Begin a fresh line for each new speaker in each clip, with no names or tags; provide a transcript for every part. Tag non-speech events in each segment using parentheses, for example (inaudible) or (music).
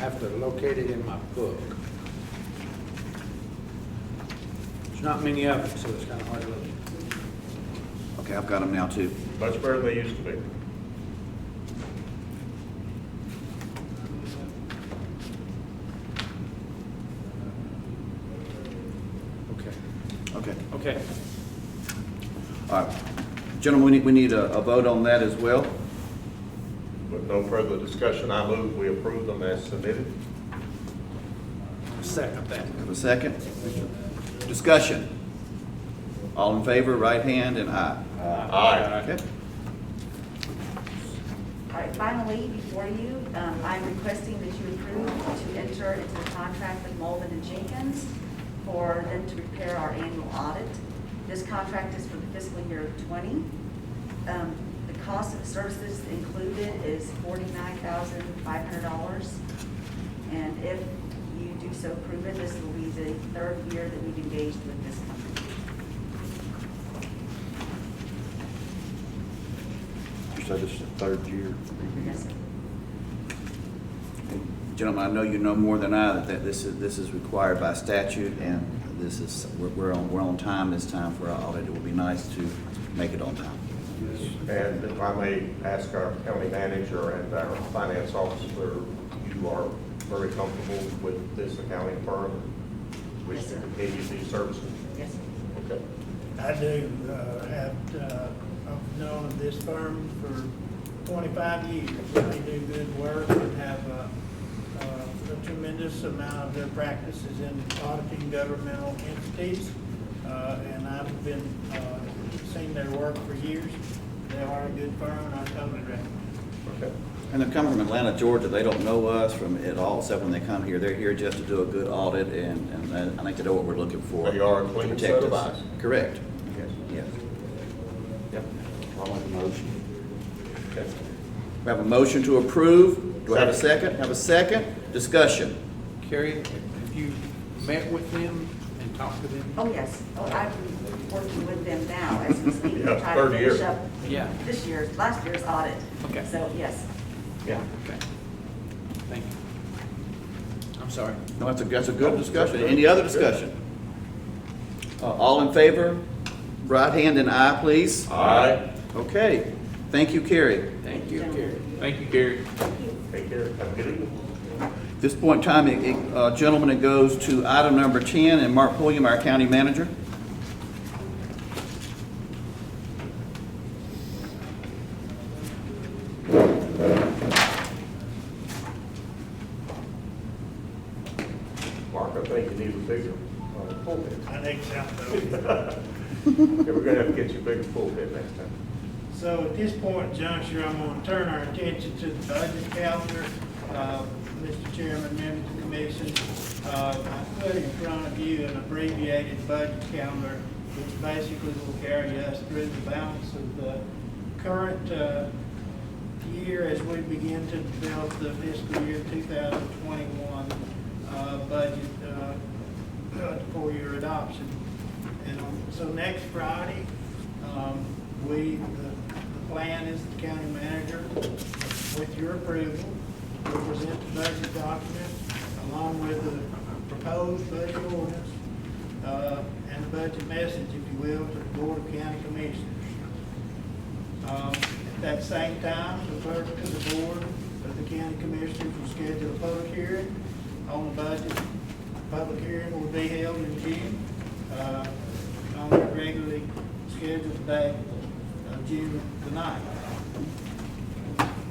have to locate it in my book. There's not many of them, so it's kind of hard to look.
Okay, I've got them now too.
Much better than they used to be.
Okay.
Okay,
Okay.
all right. Gentlemen, we need, we need a, a vote on that as well.
With no further discussion, I move we approve them as submitted.
Second that.
Have a second? Discussion. All in favor, right hand and aye.
Aye.
Okay.
All right, finally, before you, um, I'm requesting that you approve to enter into the contract with Mulvin and Jenkins for them to prepare our annual audit. This contract is for the fiscal year '20. The cost of the services included is $49,500. And if you do so approve it, this will be the third year that we've engaged with this company.
You said this is the third year.
Yes, sir.
Gentlemen, I know you know more than I that- that this is, this is required by statute and this is, we're- we're on, we're on time this time for our audit. It would be nice to make it on time.
And if I may ask our county manager and our finance officer, you are very comfortable with this accounting firm? Wish
Yes,
to
sir.
continue these services?
Yes, sir.
Okay.
I do uh, have, uh, I've known of this firm for 25 years. They do good work and have uh, uh, a tremendous amount of their practices in auditing governmental entities. Uh, And I've been, uh, seen their work for years. They are a good firm and I totally recommend it.
Okay.
And they come from Atlanta, Georgia. They don't know us from at all, except when they come here. They're here just to do a good audit and, and I think they know what we're looking for.
They are
to
clean
protect us.
certified.
Correct,
Yes.
yes.
I'll make a motion. Okay.
We have a motion to approve. Do I have a second? Have a second? Discussion.
Carrie, have you met with them and talked to them?
Oh, yes. Oh, I've been working with them now as we speak,
Yeah,
trying to
third year.
finish up
Yeah.
this year's, last year's audit.
Okay.
So, yes.
Yeah.
Okay. Thank you. I'm sorry.
No, that's a, that's a good discussion. Any other discussion? Uh, All in favor? Right hand and aye, please.
Aye.
Okay. Thank you, Carrie.
Thank you,
Gentlemen.
Carrie. Thank you, Carrie.
Take care. Have a good evening.
At this point in time, it- it, uh, gentlemen, it goes to item number 10, and Mark Pulliam, our county manager.
Mark, I think you need a bigger uh, pulpit.
I think so.
Yeah, we're gonna have to get you a bigger pulpit next time.
So at this point in juncture, I'm going to turn our attention to the budget calendar. Uh, Mr. Chairman, members of the commission, uh, I put in front of you an abbreviated budget calendar, which basically will carry us through the balance of the current uh, year as we begin to develop the fiscal year 2021 uh, budget uh, (clears throat) for your adoption. And um, so next Friday, um, we, the the plan is the county manager, with your approval, will present the budget document along with the proposed budget ordinance uh, and the budget message, if you will, to the Board of County Commissioners. Um, At that same time, the clerk to the board of the county commissioners will schedule a public hearing on the budget. Public hearing will be held in June, uh, on the regularly scheduled date of June the ninth.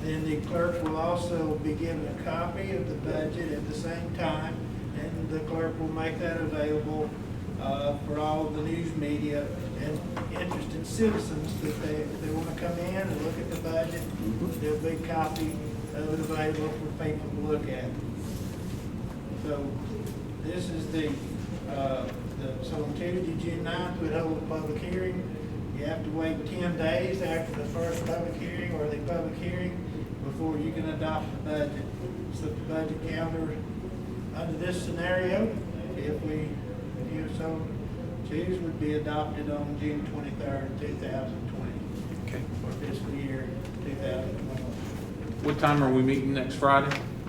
Then the clerk will also be given a copy of the budget at the same time, and the clerk will make that available uh, for all the news media and interested citizens that they, if they want to come in and look at the budget. There'll be a copy of it available for people to look at. So this is the, uh, the- so on Tuesday, June 9th, we hold a public hearing. You have to wait 10 days after the first public hearing or the public hearing before you can adopt the budget. So the budget calendar, under this scenario, if we, if you so choose, would be adopted on June 23rd, 2020,
Okay.
for fiscal year 2021.
What time are we meeting next Friday?